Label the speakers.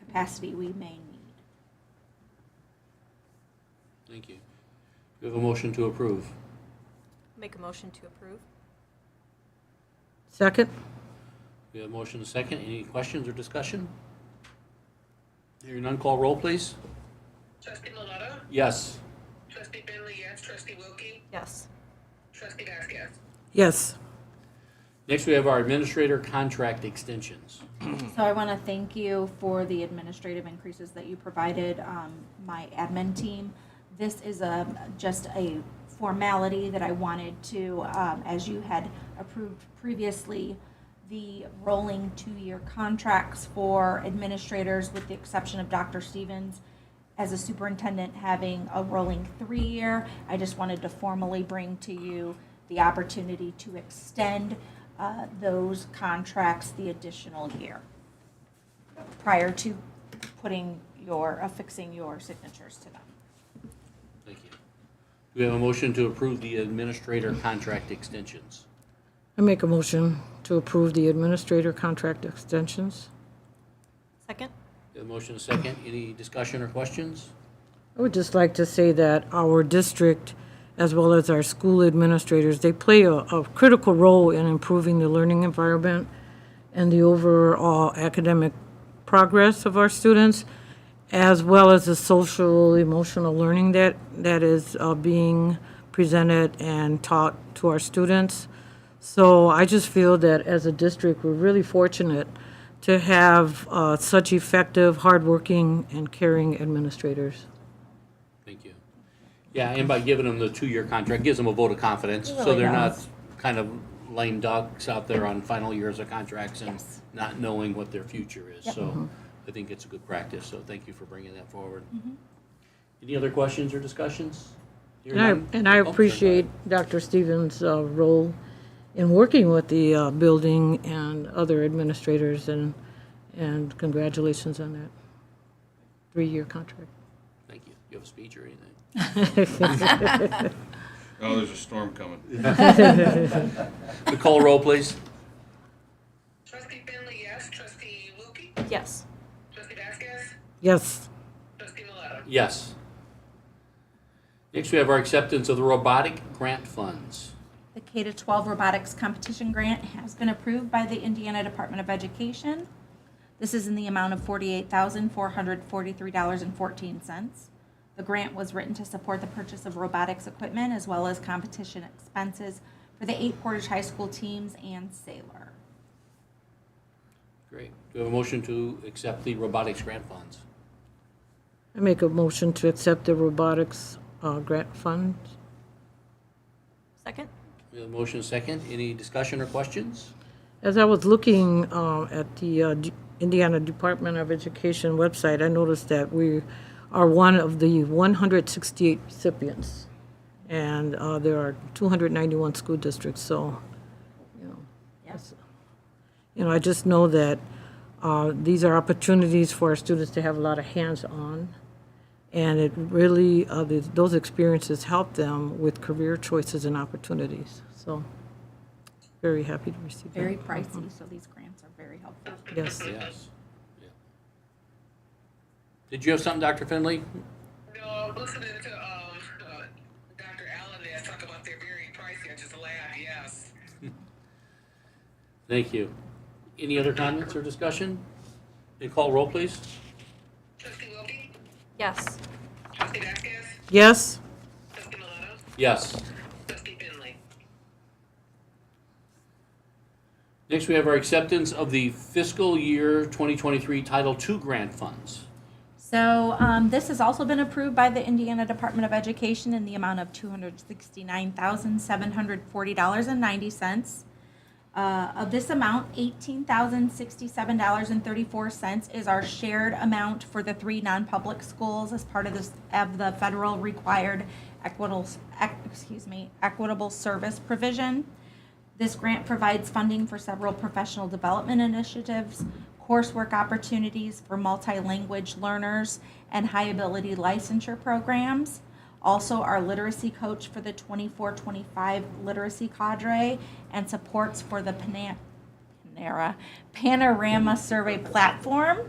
Speaker 1: capacity we may need.
Speaker 2: Thank you. We have a motion to approve.
Speaker 3: Make a motion to approve?
Speaker 4: Second?
Speaker 2: We have a motion and a second. Any questions or discussion? Hearing none, call roll, please.
Speaker 5: Trustee Milano,
Speaker 2: Yes.
Speaker 5: trustee Bentley, yes, trustee Wilkie,
Speaker 3: Yes.
Speaker 5: trustee Vasquez.
Speaker 4: Yes.
Speaker 2: Next, we have our administrator contract extensions.
Speaker 1: So I want to thank you for the administrative increases that you provided um, my admin team. This is a, just a formality that I wanted to, um, as you had approved previously, the rolling two-year contracts for administrators, with the exception of Dr. Stevens, as a superintendent having a rolling three-year. I just wanted to formally bring to you the opportunity to extend uh, those contracts the additional year prior to putting your, affixing your signatures to them.
Speaker 2: Thank you. We have a motion to approve the administrator contract extensions.
Speaker 4: I make a motion to approve the administrator contract extensions.
Speaker 3: Second?
Speaker 2: We have a motion and a second. Any discussion or questions?
Speaker 4: I would just like to say that our district, as well as our school administrators, they play a, a critical role in improving the learning environment and the overall academic progress of our students, as well as the social, emotional learning that, that is uh, being presented and taught to our students. So I just feel that as a district, we're really fortunate to have uh, such effective, hardworking, and caring administrators.
Speaker 2: Thank you. Yeah, and by giving them the two-year contract, gives them a vote of confidence, so they're not kind of lame ducks out there on final years of contracts and
Speaker 1: Yes.
Speaker 2: not knowing what their future is. So I think it's a good practice, so thank you for bringing that forward. Any other questions or discussions? Hearing
Speaker 4: And I,
Speaker 2: none?
Speaker 4: and I
Speaker 2: Oh, sorry.
Speaker 4: appreciate Dr. Stevens' uh, role in working with the uh, building and other administrators, and, and congratulations on that three-year contract.
Speaker 2: Thank you. You have a speech or anything?
Speaker 6: Oh, there's a storm coming.
Speaker 2: Nicole, roll, please.
Speaker 5: Trustee Bentley, yes, trustee Wilkie,
Speaker 3: Yes.
Speaker 5: trustee Vasquez,
Speaker 4: Yes,
Speaker 5: trustee Milano.
Speaker 2: Yes. Next, we have our acceptance of the robotic grant funds.
Speaker 1: The K to 12 robotics competition grant has been approved by the Indiana Department of Education. This is in the amount of $48,443.14. The grant was written to support the purchase of robotics equipment as well as competition expenses for the eight Portage High School teams and Sailor.
Speaker 2: Great. Do we have a motion to accept the robotics grant funds?
Speaker 4: I make a motion to accept the robotics uh, grant fund.
Speaker 3: Second?
Speaker 2: We have a motion second. Any discussion or questions?
Speaker 4: As I was looking uh, at the uh, D- Indiana Department of Education website, I noticed that we are one of the 168 recipients, and uh, there are 291 school districts, so, you know. that's- You know, I just know that uh, these are opportunities for our students to have a lot of hands-on, and it really, uh, th- those experiences help them with career choices and opportunities, so very happy to receive that.
Speaker 1: Very pricey, so these grants are very helpful.
Speaker 4: Yes.
Speaker 2: Yes. Yeah. Did you have something, Dr. Finley?
Speaker 5: No, I'm listening to, um, uh, Dr. Allen there talk about they're very pricey, I just laughed, yes.
Speaker 2: Thank you. Any other comments or discussion? Nicole, roll, please.
Speaker 5: Trustee Wilkie,
Speaker 3: Yes.
Speaker 5: trustee Vasquez,
Speaker 4: Yes,
Speaker 5: trustee Milano,
Speaker 2: Yes.
Speaker 5: trustee Bentley.
Speaker 2: Next, we have our acceptance of the fiscal year 2023 Title II grant funds.
Speaker 1: So um, this has also been approved by the Indiana Department of Education in the amount of two hundred sixty-nine thousand seven hundred forty dollars and ninety cents. Uh, of this amount, eighteen thousand sixty-seven dollars and thirty-four cents is our shared amount for the three non-public schools as part of this of the federal required equitable ec- excuse me equitable service provision. This grant provides funding for several professional development initiatives, coursework opportunities for multi-language learners, and high-ability licensure programs. Also, our literacy coach for the 24-25 literacy cadre and supports for the Pana- Panera Panorama Survey Platform